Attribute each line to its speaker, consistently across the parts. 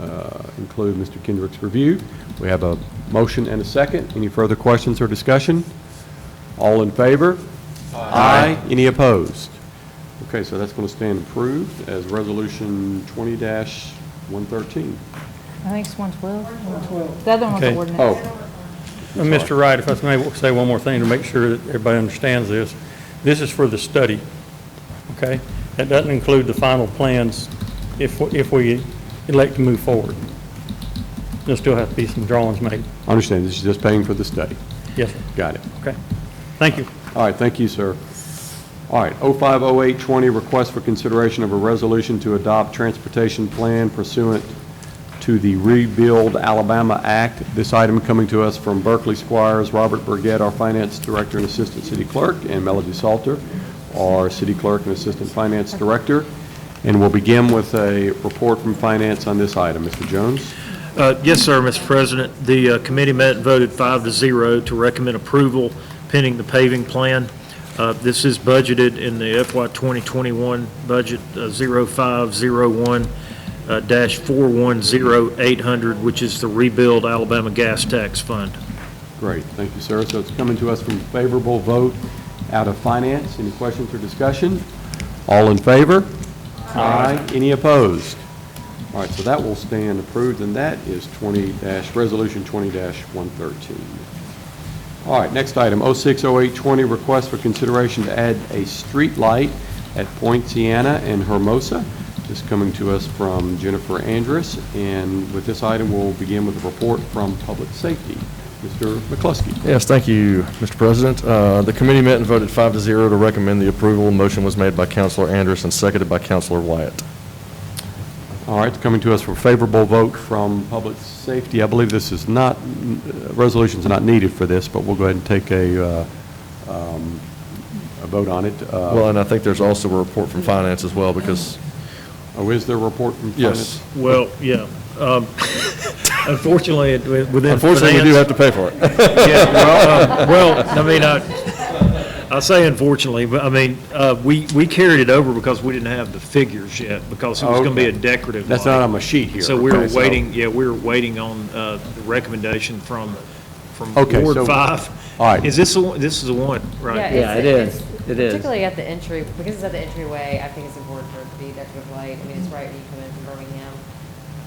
Speaker 1: uh, include Mr. Kendrick's review. We have a motion and a second. Any further questions or discussion? All in favor? Aye. Any opposed? Okay, so that's going to stand approved as Resolution 20-113.
Speaker 2: I think it's 112. 112. The other one was
Speaker 3: Okay.
Speaker 2: ordinance.
Speaker 1: Oh,
Speaker 3: Uh, Mr. Wright, if I may say one more thing to make sure that everybody understands this. This is for the study, okay? That doesn't include the final plans if, if we elect to move forward. There'll still have to be some drawings made.
Speaker 1: I understand, this is just paying for the study.
Speaker 3: Yes, sir.
Speaker 1: Got it.
Speaker 3: Okay. Thank you.
Speaker 1: All right, thank you, sir. All right, 050820, request for consideration of a resolution to adopt transportation plan pursuant to the Rebuild Alabama Act. This item coming to us from Berkeley Squires, Robert Burgett, our Finance Director and Assistant City Clerk, and Melody Salter, our City Clerk and Assistant Finance Director. And we'll begin with a report from Finance on this item. Mr. Jones?
Speaker 4: Uh, Yes, sir, Mr. President. The uh, committee met and voted five to zero to recommend approval pending the paving plan. Uh, This is budgeted in the FY 2021 budget uh, 0501 uh, dash 410800, which is the rebuild Alabama gas tax fund.
Speaker 1: Great, thank you, sir. So it's coming to us from favorable vote out of finance. Any questions or discussion? All in favor? Aye. Any opposed? All right, so that will stand approved, and that is 20 dash, Resolution 20 dash 113. All right, next item, 060820, request for consideration to add a street light at Point Sienna and Hermosa. This coming to us from Jennifer Andrus, and with this item, we'll begin with a report from Public Safety. Mr. McCluskey.
Speaker 5: Yes, thank you, Mr. President. Uh, The committee met and voted five to zero to recommend the approval. Motion was made by Counselor Anderson, seconded by Counselor Wyatt.
Speaker 1: All right, coming to us for favorable vote from Public Safety. I believe this is not, uh, resolution's not needed for this, but we'll go ahead and take a, uh, um, a vote on it. Uh,
Speaker 5: Well, and I think there's also a report from Finance as well, because,
Speaker 1: Oh, is there a report from
Speaker 5: yes.
Speaker 1: Finance?
Speaker 4: Well, yeah. um, Unfortunately, it- within
Speaker 5: Unfortunately, we do
Speaker 4: finance-
Speaker 5: have to pay for it.
Speaker 4: Yeah, well, um, well, I mean, I, I say unfortunately, but I mean, uh, we, we carried it over because we didn't have the figures yet, because it was gonna be a
Speaker 1: Okay.
Speaker 4: decorative
Speaker 1: That's
Speaker 4: light.
Speaker 1: not on my sheet here.
Speaker 4: So we were
Speaker 1: Okay,
Speaker 4: waiting, yeah, we were waiting on, uh, the recommendation from, from
Speaker 1: Okay, so-
Speaker 4: Ward Five.
Speaker 1: all right.
Speaker 4: Is this the one, this is the one, right?
Speaker 6: Yeah, it
Speaker 7: it's-
Speaker 6: is.
Speaker 7: it's-
Speaker 6: It is.
Speaker 7: Particularly at the entry, because it's at the entryway, I think it's important for it to be decorative light. I mean, it's right when you come in from Birmingham.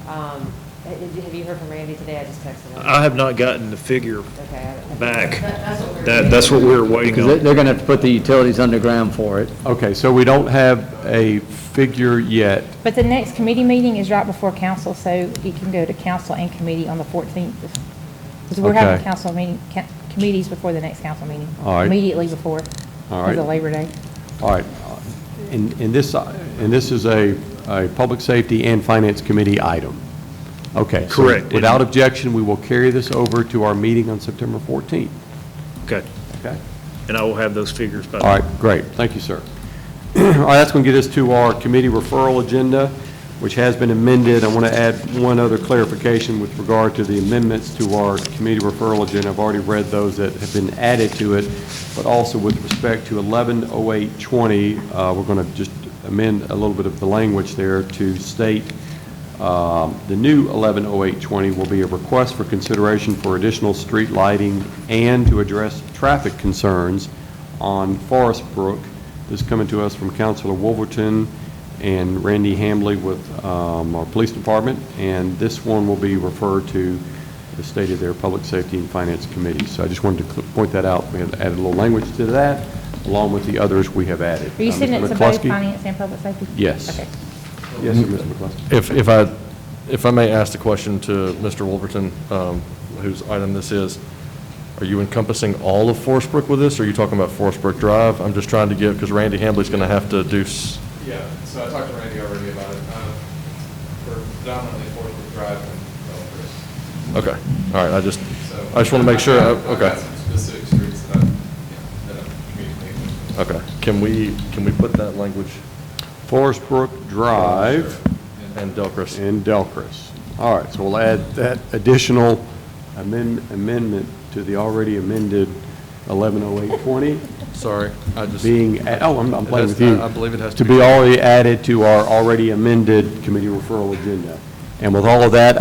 Speaker 7: Um, ha- did you- Have you heard from Randy today? I just texted him.
Speaker 4: I have not gotten the figure
Speaker 7: Okay. I- I-
Speaker 4: back.
Speaker 7: That's what we're-
Speaker 4: That, that's what we were waiting
Speaker 6: Because
Speaker 4: on.
Speaker 6: they're going to have to put the utilities underground for it.
Speaker 1: Okay, so we don't have a figure yet.
Speaker 2: But the next committee meeting is right before council, so it can go to council and committee on the 14th. Because we're having
Speaker 1: Okay.
Speaker 2: council meeting, ca- committees before the next council meeting.
Speaker 1: All right.
Speaker 2: Immediately before.
Speaker 1: All right.
Speaker 2: Because of Labor Day.
Speaker 1: All right, and, and this, and this is a, a Public Safety and Finance Committee item. Okay. so
Speaker 4: Correct.
Speaker 1: Without objection, we will carry this over to our meeting on September 14th.
Speaker 4: Okay,
Speaker 1: Okay?
Speaker 4: and I will have those figures by.
Speaker 1: All right, great, thank you, sir. All right, that's going to get us to our committee referral agenda, which has been amended. I want to add one other clarification with regard to the amendments to our committee referral agenda. I've already read those that have been added to it, but also with respect to 110820, uh, we're going to just amend a little bit of the language there to state um, The new 110820 will be a request for consideration for additional street lighting and to address traffic concerns on Forest Brook. This is coming to us from Councilor Wolverton and Randy Hambley with um, our Police Department, and this one will be referred to the State of their Public Safety and Finance Committee. So I just wanted to cl- point that out. We have added a little language to that, along with the others we have added.
Speaker 2: Are you
Speaker 1: Uh, Mr.
Speaker 2: sending it to both
Speaker 1: McCluskey?
Speaker 2: finance and public safety?
Speaker 1: Yes.
Speaker 2: Okay.
Speaker 1: Yes, sir, Mr. McCluskey.
Speaker 5: If, if I, if I may ask the question to Mr. Wolverton, um, whose item this is, are you encompassing all of Forest Brook with this, or are you talking about Forest Brook Drive? I'm just trying to give, because Randy Hambley's going to have to do, s-
Speaker 8: Yeah, so I talked to Randy already about it. Um, We're predominantly four-wheel drive and developers.
Speaker 5: okay, all right, I just,
Speaker 8: So uh,
Speaker 5: I just want to make sure, I-
Speaker 8: I've got- I've
Speaker 5: okay.
Speaker 8: got some specific streets that I'm, yeah, that I'm communicating with.
Speaker 5: Okay, can we, can we put that language
Speaker 1: Forest Brook Drive.
Speaker 5: and Delcris?
Speaker 1: And Delcris. All right, so we'll add that additional amend- amendment to the already amended 110820
Speaker 5: Sorry, I just,
Speaker 1: being, a- oh, I'm I'm playing
Speaker 5: It has-
Speaker 1: with you.
Speaker 5: I- I believe it has
Speaker 1: To
Speaker 5: to be-
Speaker 1: be already added to our already amended committee referral agenda. And with all of that,